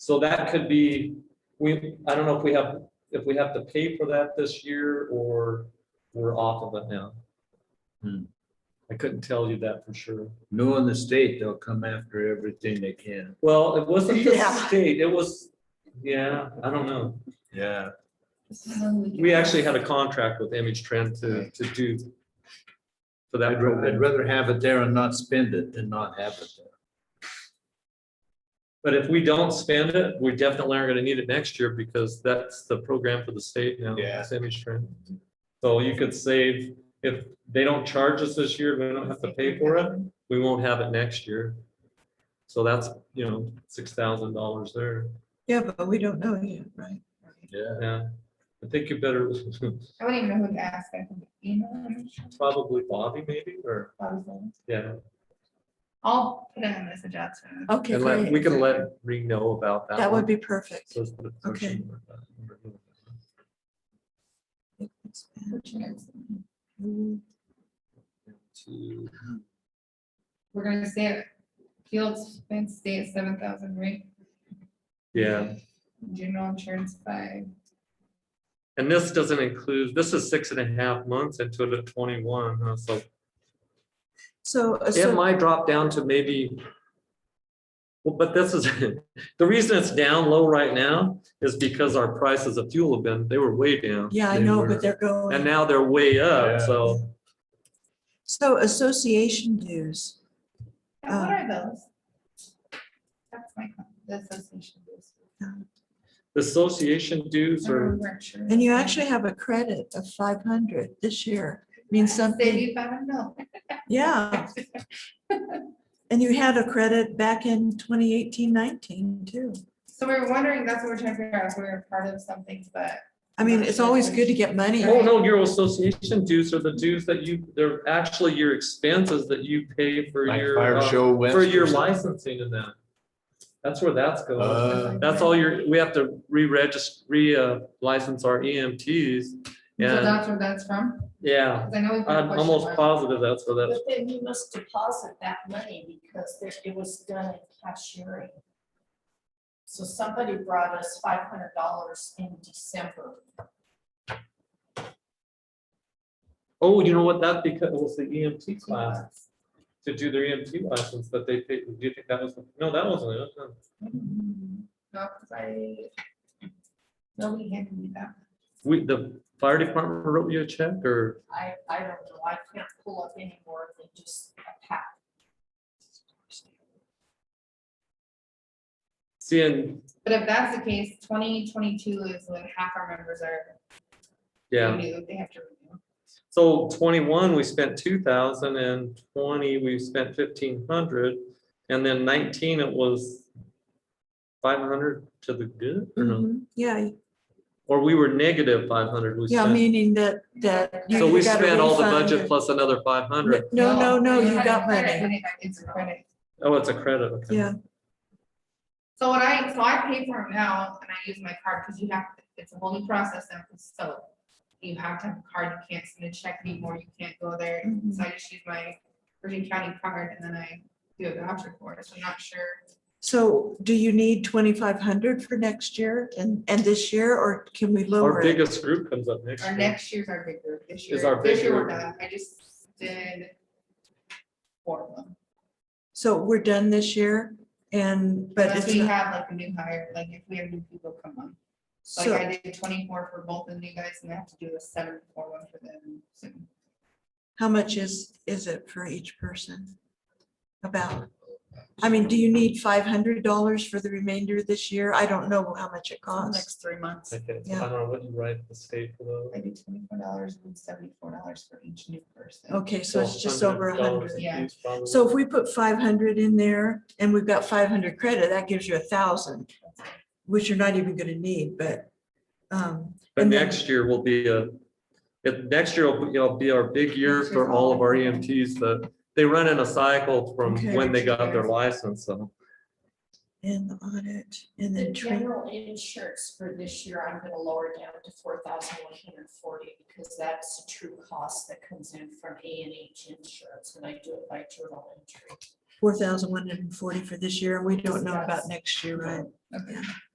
So that could be, we, I don't know if we have, if we have to pay for that this year or we're off of it now. Hmm. I couldn't tell you that for sure. Knowing the state, they'll come after everything they can. Well, it wasn't the Yeah. state, it was, yeah, I don't know. Yeah. We actually had a contract with Image Trend to, to do for that I'd ra- I'd program. rather have it there and not spend it than not have it there. But if we don't spend it, we definitely aren't gonna need it next year because that's the program for the state now. Yeah. it's Image Trend. So you could save, if they don't charge us this year, we don't have to pay for it, we won't have it next year. So that's, you know, six thousand dollars there. Yeah, but we don't know yet, right? Yeah. Yeah, I think you better, I wouldn't even know who to ask. I can email them. probably Bobby maybe, or, Probably. yeah. I'll put in a message out to them. Okay, And let, we great. can let Ree know about that. That one. would be perfect. So it's the Okay. portion where that number is. Two, We're gonna say it. Fields, Fence State, seven thousand, right? Yeah, General insurance five. and this doesn't include, this is six and a half months into the twenty-one, huh, so So, uh, it so, might drop down to maybe. Well, but this is, the reason it's down low right now is because our prices of fuel have been, they were way down. yeah, I They know, were- but they're And going, now they're way Yeah. up, so so association dues, Yeah, What Oh. are those? That's my, con- the association. is. the association dues Remember are, we weren't sure. and you actually have a credit of five hundred this year, means Save something, you five mil. yeah. And you had a credit back in 2018-19 too. So we we're wondering, that's what we're trying to figure out, if we we're part of something, but I mean, it's always good to get money. oh no, your association dues are the dues that you, they're actually your expenses that you pay for Like your. fire uh, show. For Wednesdays. your licensing and that. That's where that's going. Uh, That's all your, we have to re-register, re-license our EMTs. so And, that's where that's from. yeah, 'Cause I know we put a I'm question almost mark. positive that's where that's, But then you must deposit that money because there- it was done in cashiering. So somebody brought us five hundred dollars in December. oh, you know what, that's because it was the EMT class to do their EMT license that they paid, do you think that was, no, that wasn't it. no. No, 'cause I. Nobody handed me that. We, the fire department wrote you a check or, I, I don't know, I can't pull up any more than just a pack. seeing, But if that's the case, twenty twenty-two is when half our members are. yeah. renewed, They have to renew. So twenty-one, we spent two thousand, and twenty, we spent fifteen hundred, and then nineteen, it was five hundred to the good, or no, Mhm. Yeah, or we were negative five hundred, we yeah, spent. meaning that, that. you So we got a spent all the refund budget or- plus another five hundred. No, no, no, we you had got a credit, money, we didn't have- It's a credit. Oh, it's a credit, okay. yeah. So what I, so I pay for it now and I use my card because you have, it's a whole new process now, so. You have to have a card, you can't send a check anymore, you can't go there, Mhm. so I just use my Virgin County card and then I do a voucher for it, so I'm not sure. So do you need twenty-five hundred for next year and, and this year, or can we lower Our it? biggest group comes up next Our year. next year's our big group, this year. Is our This big year we're group. done, I just did. Four of them, So we're done this year and, but unless it's we not, have like a new hire, like if we have new people come on. Like so, I did twenty-four for both of you guys and I have to do a seven for one for them soon. how much is, is it for each person? About, I mean, do you need five hundred dollars for the remainder of this year? I don't know how much it costs. three months. Okay, so I Yeah. don't know what you write the state for those. I do twenty-four dollars and seventy-four dollars for each new person. Okay, so it's just over a $100 hundred. Yeah. apiece, probably. So if we put five hundred in there and we've got five hundred credit, that gives you a thousand, which you're not even gonna need, but. um, But and then- next year will be a, if, next year will be- will be our big year Next year's for all of our all- EMTs that, they run in a cycle from Okay. when they got their license, so. And the audit, and The then train, general insurance for this year, I'm gonna lower down to four thousand one hundred forty because that's the true cost that comes in from A and H insurance and I do it by journal entry. four thousand one hundred and forty for this year, and we don't know about next year, right? Okay.